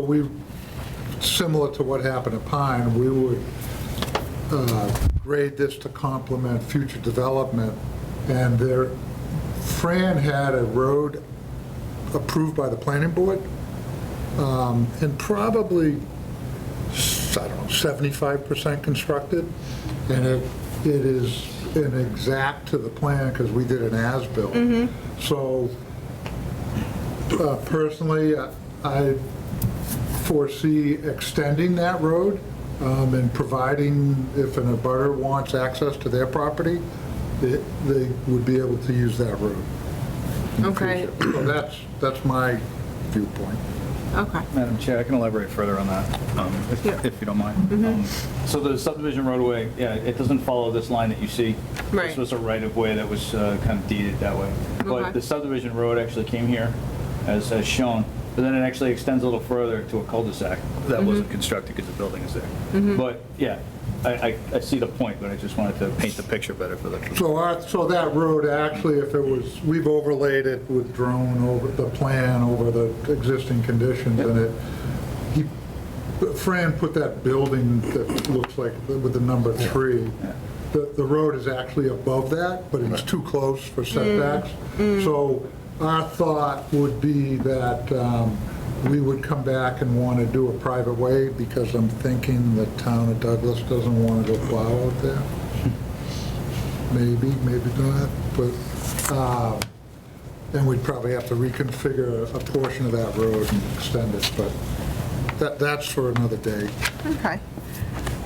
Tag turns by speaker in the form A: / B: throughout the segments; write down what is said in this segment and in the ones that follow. A: We, similar to what happened at Pine, we would uh, grade this to complement future development, and there, Fran had a road approved by the planning board, um, and probably, s- I don't know, 75% constructed, and it, it is an exact to the plan, because we did an as-built. So uh, personally, I- I foresee extending that road um, and providing if an abutter wants access to their property, that they would be able to use that road. in the
B: Okay.
A: future. So that's, that's my viewpoint.
B: Okay.
C: Madam Chair, I can elaborate further on that, um, if
B: Yeah. Mm-hmm.
C: if you don't mind. Um, So the subdivision roadway, yeah, it doesn't follow this line that you see.
B: Right.
C: This was a right-of-way that was uh, kind of deeded that way.
B: Okay.
C: But the subdivision road actually came here, as as shown, but then it actually extends a little further to a cul-de-sac
B: Mm-hmm.
C: that wasn't constructed because the building is there. But, yeah, I I- I see the point, but I just wanted to paint the picture better for the,
A: So our, so that road, actually, if it was, we've overlaid it with drone over the plan, over the existing conditions, and it, he, Fran put that building that looks like, with the number three, the, the road is actually above that, but it's too close for setbacks. So our thought would be that um, we would come back and want to do a private way, because I'm thinking the town of Douglas doesn't want to go plow out there maybe, maybe not, but, uh, and we'd probably have to reconfigure a portion of that road and extend it, but that, that's for another day.
B: Okay.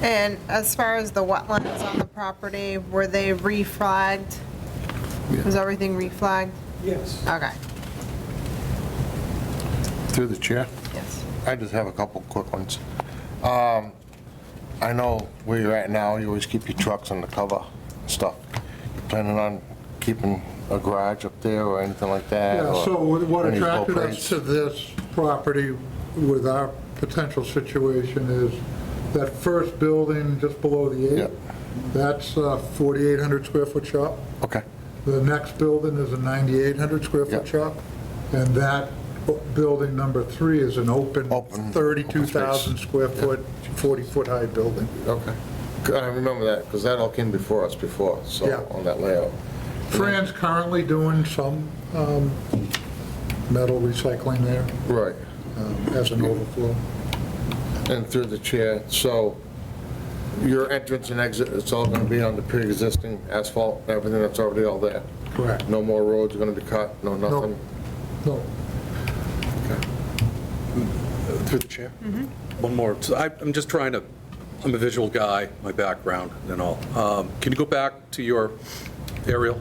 B: And as far as the wetlands on the property, were they reflagged? Was everything reflagged?
D: Yes.
B: Okay,
E: Through the chair,
B: yes.
E: I just have a couple quick ones. Um, I know where you're at now, you always keep your trucks on the cover and stuff. You Planning on keeping a garage up there or anything like that?
A: Yeah,
E: or
A: so what
E: any
A: attracted us
E: openings?
A: to this property with our potential situation is that first building just below the eight,
E: Yep.
A: that's a 4,800 square foot shop.
E: Okay,
A: The next building is a 9,800 square
E: Yeah.
A: foot shop, and that o- building number three is an open,
E: Open-
A: 32,000
E: open space.
A: square foot, 40-foot high building.
E: okay. I remember that, because that all came before us before, so,
A: Yeah.
E: on that layout.
A: Fran's currently doing some um, metal recycling there
E: Right.
A: um, as an overflow.
E: And through the chair, so your entrance and exit, it's all going to be on the pre-existing asphalt, everything that's already all there?
A: Correct.
E: No more roads going to be cut, no nothing?
A: No,
E: Through the chair?
D: One more. So I- I'm just trying to, I'm a visual guy, my background and all. Um, Can you go back to your aerial?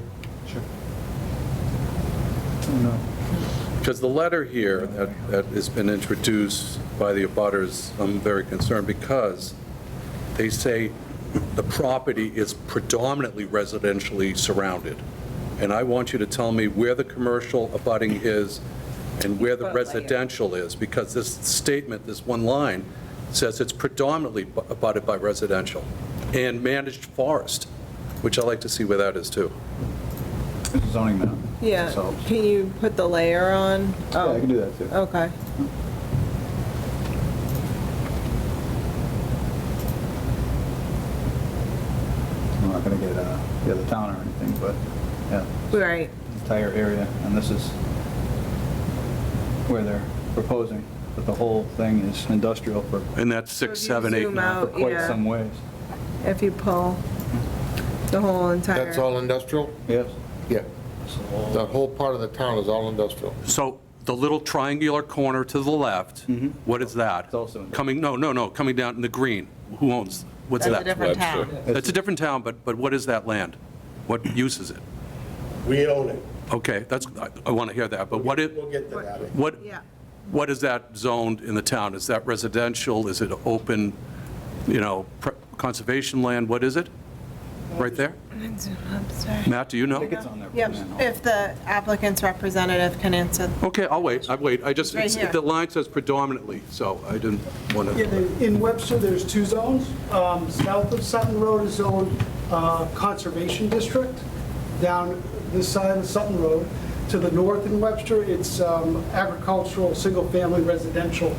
C: No.
D: Because the letter here that that has been introduced by the abutters, I'm very concerned because they say the property is predominantly residentially surrounded. And I want you to tell me where the commercial abutting is and where the residential is, because this statement, this one line, says it's predominantly bu- abutted by residential and managed forest, which I like to see where that is too.
C: this is zoning map.
B: Yeah,
C: So-
B: can you put the layer on?
C: Yeah, I can do that, too.
B: Okay.
C: I'm not going to get, uh, the other town or anything, but, yeah.
B: Right,
C: entire area, and this is where they're proposing, but the whole thing is industrial for
D: And that's
B: if
D: six,
B: you
D: seven, eight,
B: zoom
D: nine.
B: out-
C: for quite
B: yeah.
C: some ways.
B: if you pull the whole entire.
E: That's all industrial?
C: Yes?
E: Yeah.
C: It's the whole-
E: That whole part of the town is all industrial.
D: So the little triangular corner to the left, what is that?
C: It's also in the-
D: Coming, no, no, no, coming down in the green. Who owns, what's
B: That's a
D: that?
B: different town.
D: That's a different town, but, but what is that land? What use is it?
F: We own it.
D: Okay, that's, I- I want to hear that, but what it,
F: We'll get to that.
D: what,
B: Yeah.
D: what is that zoned in the town? Is that residential? Is it open, you know, pre- conservation land? What is it? Right there?
B: I'm sorry.
D: Matt, do you know?
C: I think it's on there.
B: Yep,
C: Yeah.
B: if the applicant's representative can answer.
D: Okay, I'll wait, I wait, I just,
B: Right
D: it's-
B: here.
D: the line says predominantly, so I didn't want to.
G: Yeah, there- in Webster, there's two zones. Um, South of Sutton Road is zoned uh, Conservation District, down this side of Sutton Road. To the north in Webster, it's um, agricultural, single-family residential